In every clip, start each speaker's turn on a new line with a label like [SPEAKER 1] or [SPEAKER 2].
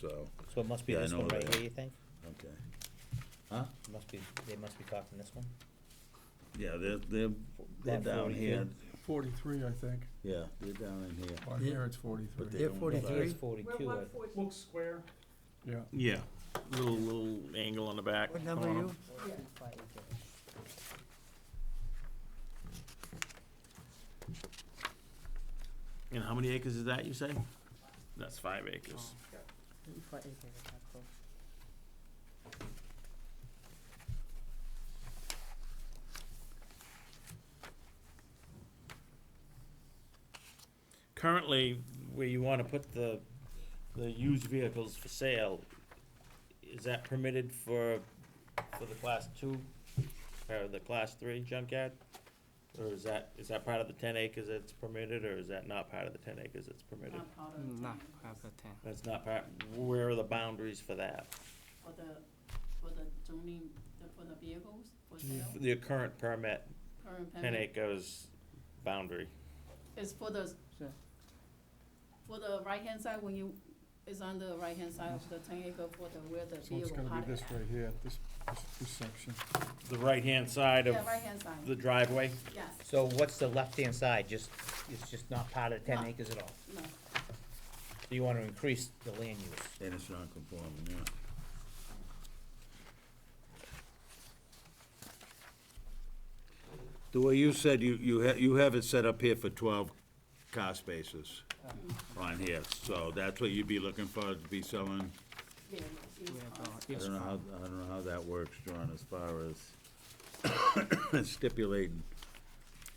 [SPEAKER 1] so,
[SPEAKER 2] So it must be
[SPEAKER 1] Yeah, I
[SPEAKER 2] this
[SPEAKER 1] know
[SPEAKER 2] one right
[SPEAKER 1] that.
[SPEAKER 2] here, you think?
[SPEAKER 1] okay. Huh?
[SPEAKER 2] It Must be, they must be talking this one?
[SPEAKER 1] Yeah, they're, they're, they're
[SPEAKER 2] Lot
[SPEAKER 1] down here,
[SPEAKER 3] 43, I think.
[SPEAKER 1] yeah, they're down in here.
[SPEAKER 3] On here, it's 43.
[SPEAKER 1] But they
[SPEAKER 4] They're
[SPEAKER 1] don't-
[SPEAKER 4] 43.
[SPEAKER 2] It's
[SPEAKER 4] Three?
[SPEAKER 5] We're
[SPEAKER 2] forty-two, I
[SPEAKER 5] one forty,
[SPEAKER 6] Looks square.
[SPEAKER 3] Yeah.
[SPEAKER 7] Yeah, little, little angle on the back.
[SPEAKER 4] What number are
[SPEAKER 7] on 'em.
[SPEAKER 4] you?
[SPEAKER 5] yeah.
[SPEAKER 7] And how many acres is that, you say? That's five acres. Currently, where you wanna put the, the used vehicles for sale, is that permitted for, for the class two, or the class three junkyard? Or is that, is that part of the ten acres that's permitted, or is that not part of the ten acres that's permitted?
[SPEAKER 5] Not part of
[SPEAKER 8] Mm,
[SPEAKER 5] the
[SPEAKER 4] Not
[SPEAKER 5] town,
[SPEAKER 4] half a ten.
[SPEAKER 7] That's not part, where are the boundaries for that?
[SPEAKER 5] For the, for the zoning, the- for the vehicles, for sale.
[SPEAKER 7] The current permit,
[SPEAKER 5] current
[SPEAKER 7] ten
[SPEAKER 5] permit.
[SPEAKER 7] acres boundary.
[SPEAKER 5] It's for the,
[SPEAKER 4] Sure.
[SPEAKER 5] for the right-hand side, when you, it's on the right-hand side of the ten acre for the, where the
[SPEAKER 3] So it's
[SPEAKER 5] vehicle
[SPEAKER 3] going to
[SPEAKER 5] parked.
[SPEAKER 3] be this right here, this, this- this section.
[SPEAKER 7] The right-hand side
[SPEAKER 5] Yeah,
[SPEAKER 7] of
[SPEAKER 5] right-hand side,
[SPEAKER 7] the driveway?
[SPEAKER 5] yes,
[SPEAKER 2] So what's the left-hand side, just, it's just not part of the ten
[SPEAKER 5] No.
[SPEAKER 2] acres at all?
[SPEAKER 5] no,
[SPEAKER 2] So you wanna increase the land use?
[SPEAKER 1] And it's non-conforming, yeah. The way you said, you, you ha you have it set up here for twelve car spaces on here, so that's what you'd be looking for, to be selling?
[SPEAKER 5] yeah, it's
[SPEAKER 4] We are
[SPEAKER 5] on-
[SPEAKER 4] going-
[SPEAKER 1] I
[SPEAKER 4] yes,
[SPEAKER 1] don't know how, I don't know how that works, John, as far as stipulating.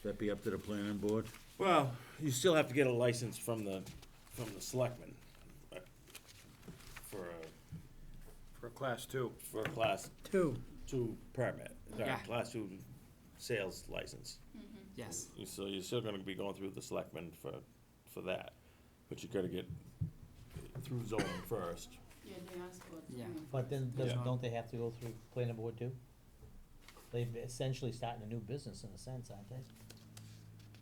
[SPEAKER 1] That be up to the planning board?
[SPEAKER 7] Well, you still have to get a license from the, from the selectmen. uh, For a,
[SPEAKER 6] For class two.
[SPEAKER 7] for a class
[SPEAKER 4] Two,
[SPEAKER 7] two permit, sorry,
[SPEAKER 4] Yeah.
[SPEAKER 7] class two sales license.
[SPEAKER 4] yes.
[SPEAKER 7] You- So you're still gonna be going through the selectmen for, for that, but you gotta get through zoning first.
[SPEAKER 5] yeah, they asked for.
[SPEAKER 4] Yeah.
[SPEAKER 5] zoning.
[SPEAKER 2] But then, doesn't-
[SPEAKER 7] Yeah.
[SPEAKER 2] don't they have to go through planning board too? They've essentially starting a new business in a sense, aren't they?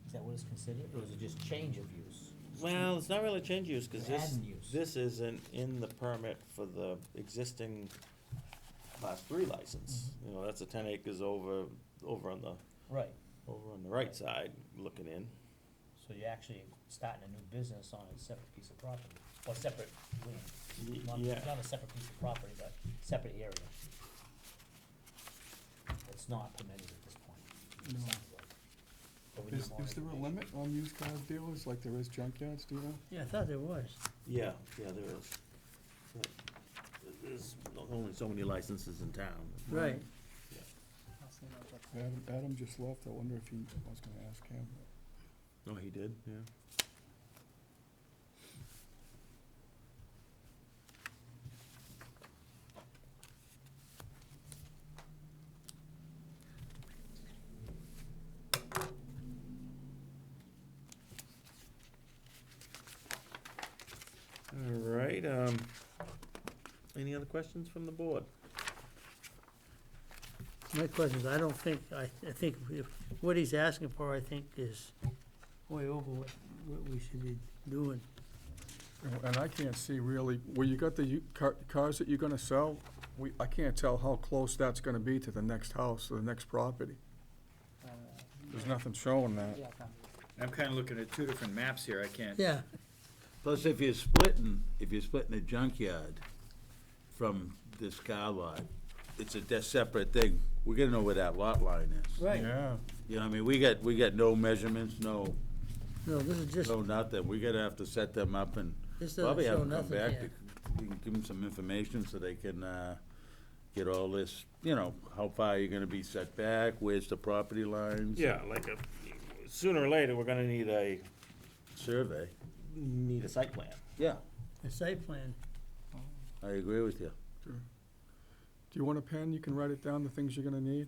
[SPEAKER 2] Is that what it's considered, or is it just change of use?
[SPEAKER 7] Well, it's not really change use, cause this,
[SPEAKER 2] Add use.
[SPEAKER 7] this isn't in the permit for the existing class three license. You know, that's a ten acres over, over on the,
[SPEAKER 2] Right,
[SPEAKER 7] over on the right side looking in.
[SPEAKER 2] so you're actually starting a new business on a separate piece of property, or separate land.
[SPEAKER 7] Y-
[SPEAKER 2] Not,
[SPEAKER 7] Yeah,
[SPEAKER 2] not a separate piece of property, but separate area. It's not permitted at this point. it
[SPEAKER 3] No.
[SPEAKER 2] sounds like. But we need
[SPEAKER 3] Is,
[SPEAKER 2] more
[SPEAKER 3] is there a
[SPEAKER 2] information.
[SPEAKER 3] limit on used car dealers like there is junkyards, do you know?
[SPEAKER 4] Yeah, I thought there was.
[SPEAKER 7] yeah, yeah, there is. Right. There's only so many licenses in town.
[SPEAKER 8] Mm-hmm.
[SPEAKER 4] Right.
[SPEAKER 3] Adam, Adam just left, I wonder if he, I was going to ask him.
[SPEAKER 7] Oh, he did, yeah. All right, um, any other questions from the board?
[SPEAKER 4] My question is, I don't think, I, I think if- what he's asking for, I think, is way over what, what we should be doing.
[SPEAKER 3] And I can't see really, where you got the u- car- cars that you're going to sell, we, I can't tell how close that's going to be to the next house, or the next property. There's nothing showing
[SPEAKER 8] Uh,
[SPEAKER 3] that.
[SPEAKER 6] I'm kinda looking at two different maps here, I can't.
[SPEAKER 4] Yeah,
[SPEAKER 1] Plus, if you're splitting, if you're splitting a junkyard from this car lot, it's a de- separate thing. We're gonna know where that lot line is.
[SPEAKER 4] right.
[SPEAKER 3] Yeah.
[SPEAKER 1] You know, what I mean, we got, we got no measurements, no,
[SPEAKER 4] No, this is just,
[SPEAKER 1] no nothing. We're gonna have to set them up and
[SPEAKER 4] this doesn't
[SPEAKER 1] probably have
[SPEAKER 4] show
[SPEAKER 1] them come
[SPEAKER 4] nothing
[SPEAKER 1] back. to
[SPEAKER 4] here.
[SPEAKER 1] you can Give them some information so they can, uh, get all this, you know, how far you're gonna be set back, where's the property lines?
[SPEAKER 7] Yeah, like a, sooner or later, we're gonna need a,
[SPEAKER 1] Survey.
[SPEAKER 7] need a site plan.
[SPEAKER 1] Yeah,
[SPEAKER 4] The site plan,
[SPEAKER 1] I agree with you.
[SPEAKER 3] Do you want a pen? You can write it down, the things you're going to need.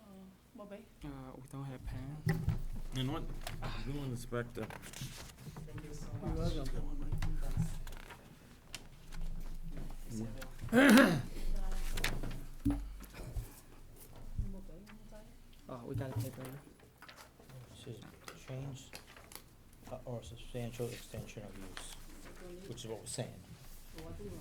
[SPEAKER 5] Uh, Mobile,
[SPEAKER 8] we don't have pen.
[SPEAKER 7] And what, building inspector,
[SPEAKER 4] you're welcome.
[SPEAKER 5] mobile, mobile.
[SPEAKER 8] Oh, we got a paper.
[SPEAKER 2] This is change uh, or substantial extension of use, which is what we're saying.
[SPEAKER 5] What do you want?